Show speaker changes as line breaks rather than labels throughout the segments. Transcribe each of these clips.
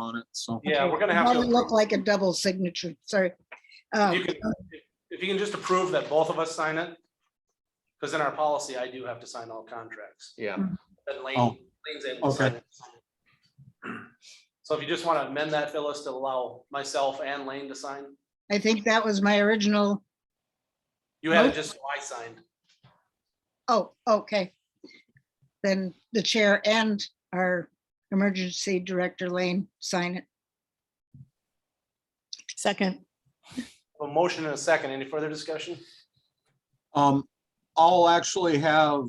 on it, so.
Yeah, Uh, we're gonna have
Doesn't look
to,
like a double signature, sorry. Uh,
you can- if you can just approve that both of us sign it. Because in our policy, I do have to sign all contracts.
Yeah,
But Lane,
Oh,
Lane's able to sign it. So if you just want to amend that, Phyllis, to allow myself and Lane to sign,
I think that was my original,
you had it
Nope.
just so I signed.
oh, okay. Then the chair and our emergency director Lane sign it.
Second,
A motion and a second. Any further discussion?
Um, I'll actually have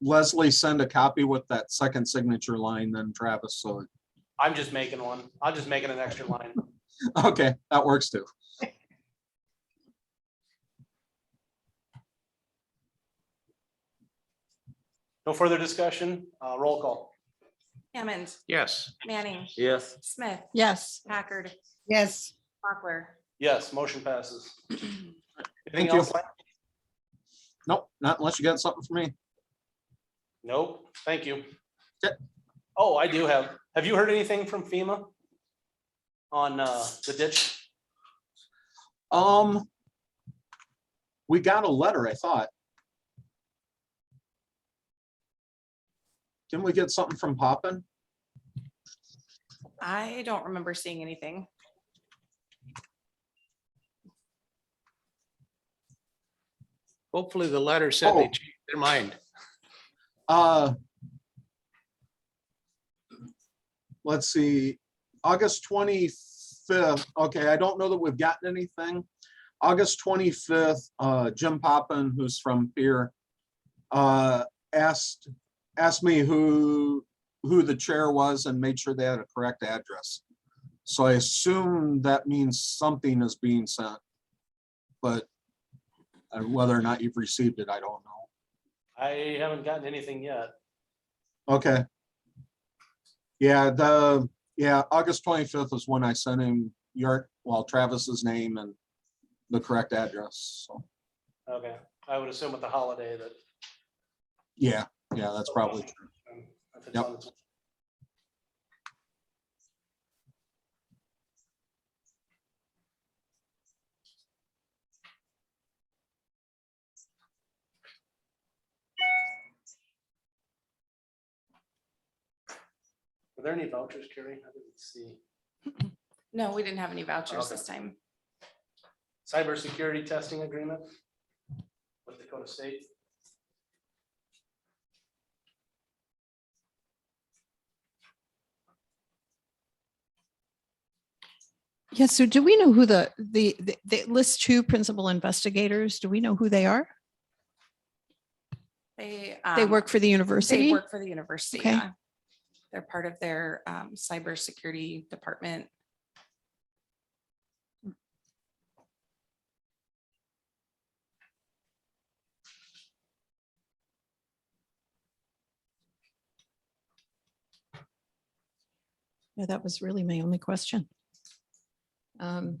Leslie send a copy with that second signature line then Travis, so,
I'm just making one. I'm just making an extra line.
okay, that works too.
No further discussion. Uh, roll call.
Hammond,
yes.
Manning,
Yes.
Smith,
yes.
Packard,
Yes,
Mochler.
Yes, motion passes.
Thank
Anything
you.
else? Lane?
Nope, not unless you got something for me.
Nope, thank you.
Okay.
Oh, I do have, have you heard anything from FEMA? On uh, the ditch?
Um, we got a letter, I thought. Didn't we get something from Poppin?
I don't remember seeing anything.
Hopefully the letter said
Oh.
they changed their mind.
Uh. Let's see, August twenty-fifth, okay, I don't know that we've gotten anything. August twenty-fifth, uh, Jim Poppin, who's from Pier, uh, asked, asked me who, who the chair was and made sure they had a correct address. So I assume that means something is being sent. But uh, whether or not you've received it, I don't know.
I haven't gotten anything yet.
Okay. Yeah, the, yeah, August twenty-fifth is when I sent him your, well, Travis's name and the correct address. So,
Okay, I would assume with the holiday that.
yeah, yeah, that's probably true.
if it's
Yep.
on its- Were there any vouchers, Carrie? I didn't see.
No, we didn't have any vouchers this time.
Cybersecurity testing agreement with Dakota State.
Yes, so do we know who the, the, the- the list two principal investigators, do we know who they are?
They.
They
um,
work for the
They
university?
work for the university,
Okay.
yeah. They're part of their um, cybersecurity department.
Yeah, that was really my only question. Um,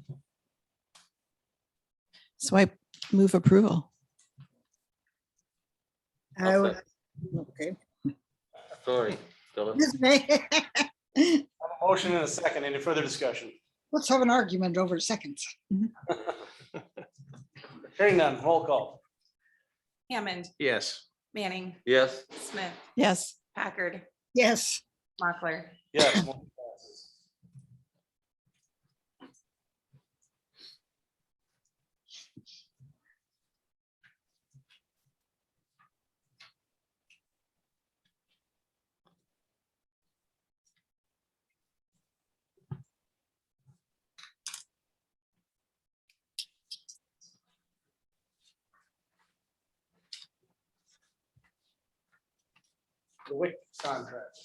So I move approval.
I would, okay.
Sorry.
Ms. May-
A Motion and a second. Any further discussion?
Let's have an argument over seconds.
Hearing none, roll call.
Hammond,
Yes.
Manning,
Yes.
Smith,
Yes,
Packard,
Yes,
Mochler.
Yes. motion passes. The WIC contract.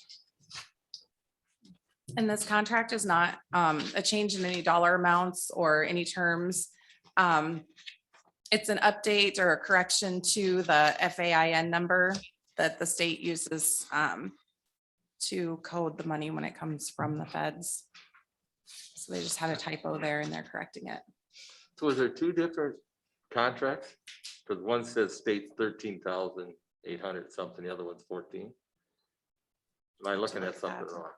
And this contract is not um, a change in any dollar amounts or any terms. Um, It's an update or a correction to the FAIN number that the state uses um, to code the money when it comes from the feds. So they just had a typo there and they're correcting it.
So is there two different contracts? Because one says states thirteen thousand eight hundred something, the other one's fourteen. Am I looking at
like that.
something wrong?